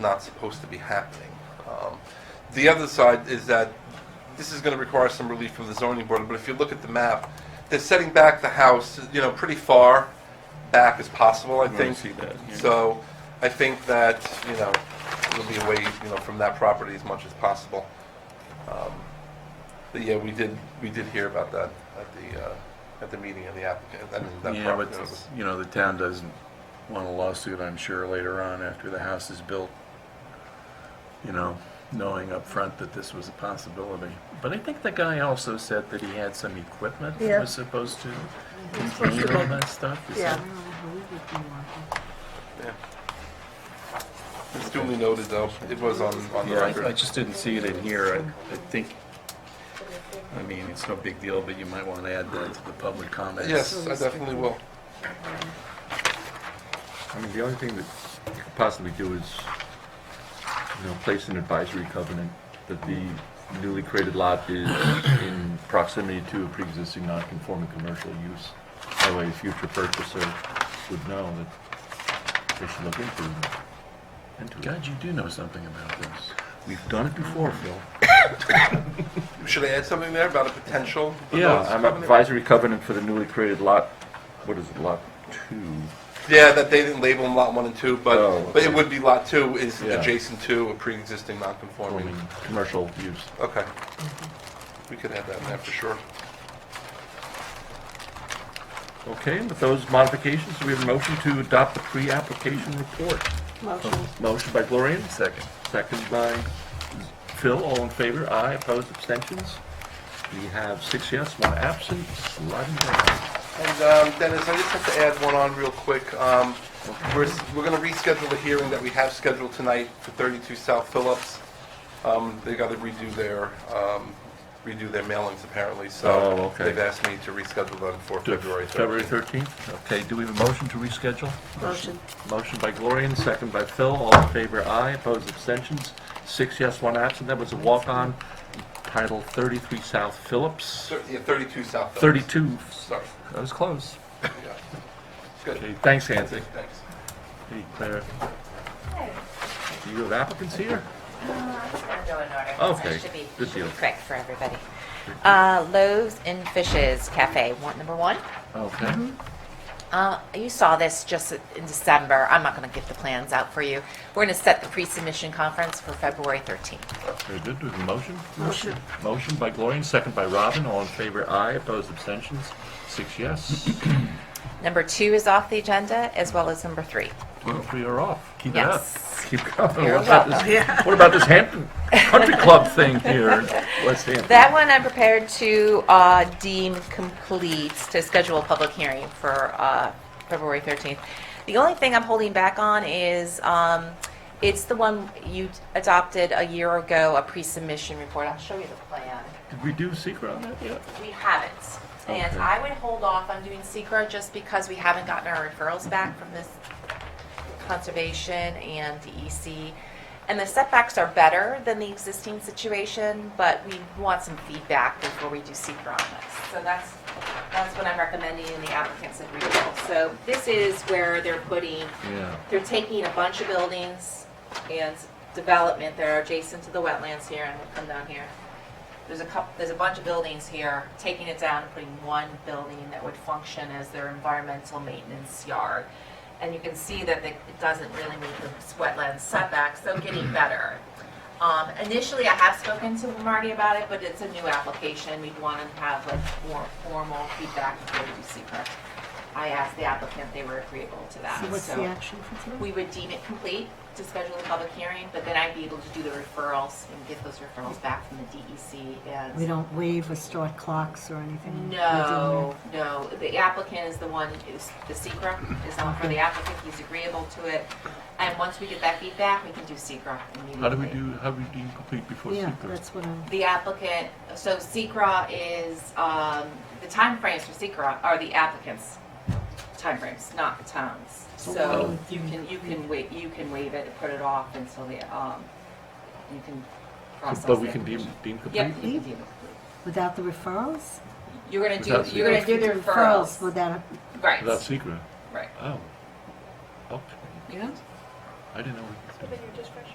not supposed to be happening. Um, The other side is that this is going to require some relief from the zoning board, but if you look at the map, they're setting back the house, you know, pretty far back as possible, I I think. see that, yeah. So I think that, you know, it'll be away, you know, from that property as much as possible. Um, But yeah, we did, we did hear about that at the, uh, at the meeting of the applicant, I mean, that Yeah, property. but, you know, the town doesn't want a lawsuit, I'm sure, later on after the house is built. You know, knowing up front that this was a possibility. But I think the guy also said that he had some equipment Yeah. that was supposed to supposed to contain all that stuff. Is Yeah. that- Yeah. It's duly noted, though, it was on, on the Yeah, record. I, I just didn't see it in here. I, I think, I mean, it's no big deal, but you might want to add that to the public comments. Yes, I definitely will. I mean, the only thing that you could possibly do is, you know, place an advisory covenant that the newly created lot is in proximity to a pre-existing non-conforming commercial use. That way, a future purchaser would know that they should look into it. into it. God, you do know something about this. We've done it before, Phil. Should I add something there about a potential? Yeah, notice I'm covenant? advisory covenant for the newly created lot, what is it, lot two? Yeah, that they didn't label them lot one and two, but, Oh, but it okay. would be lot two is Yeah. adjacent to a pre-existing non-conforming. Forming commercial use. Okay. We could add that in there for sure. Okay, and with those modifications, we have a motion to adopt the pre-application report. Motion. Motion by Gloria, Second. second by Phil, all in favor, aye, opposed, abstentions. We have six yes, one absent, sliding down. And um, Dennis, I just have to add one on real quick. Um, We're, s- we're going to reschedule the hearing that we have scheduled tonight for 32 South Phillips. Um, They got to redo their, um, redo their mailings apparently, Oh, so okay. they've asked me to reschedule them for To February 3rd. February 13th, okay, do we have a motion to reschedule? Motion. Motion by Gloria, second by Phil, all in favor, aye, opposed, abstentions. Six yes, one absent, that was a walk-on, title 33 South Phillips, Thir- Yeah, 32 South Phillips. 32, Sorry. that was close. Yeah. Good, Okay, thanks, Nancy. thanks. Hey, Claire. Do you have applicants here? I'll go in order. Oh, Okay, It should be- good should be deal. Quick for everybody. Uh, Loaves and Fishes Cafe, want number one. Okay. Uh, You saw this just in December. I'm not going to get the plans out for you. We're going to set the pre-submission conference for February 13th. Very good. Do we have a motion? Motion. Motion by Gloria, second by Robin. All in favor, aye. Opposed, abstentions? Six yes. Number two is off the agenda, as well as number three. We are off. Keep it up. Yes. Keep going. You're What about this- welcome. What about this Hampton Country Club thing here in West Hampton? That one I'm prepared to uh, deem complete, to schedule a public hearing for uh, February 13th. The only thing I'm holding back on is, um, it's the one you adopted a year ago, a pre-submission report. I'll show you the plan. Did we do secret on that yet? We haven't. And Okay. I would hold off on doing secra just because we haven't gotten our referrals back from this conservation and DEC. And the setbacks are better than the existing situation, but we want some feedback before we do secra on this. So that's, that's what I'm recommending and the applicants agree with. So this is where they're putting Yeah. they're taking a bunch of buildings and development that are adjacent to the wetlands here, and we'll come down here. There's a couple, there's a bunch of buildings here, taking it down and putting one building that would function as their environmental maintenance yard. And you can see that they- it doesn't really meet the wetland setbacks, so getting better. Um, initially, I have spoken to Marty about it, but it's a new application, we'd want to have like more formal feedback before we do secret. I asked the applicant, they were agreeable to that, So what's so- the action for today? we would deem it complete to schedule a public hearing, but then I'd be able to do the referrals and get those referrals back from the E DEC We and. don't waive or start clocks or anything? No, no, the applicant is the one, is the secret is on for the applicant, he's agreeable to it. And once we get that feedback, we can do secret immediately. How do we do, how do we deem complete before We do, yeah. Yeah, secret? that's what I'm, The applicant, so SECR is, um, the timeframes for SECR are the applicant's timeframes, not the town's. So you can, you can wait, you can waive it, put it off until the, um, you can process it. But we can deem, deem complete? Yep, you can deem it. without the referrals? You're gonna Without do, you're gonna do the With referrals, Without, right, Without secret? right. Oh. Okay. Yeah. I didn't know we could do that.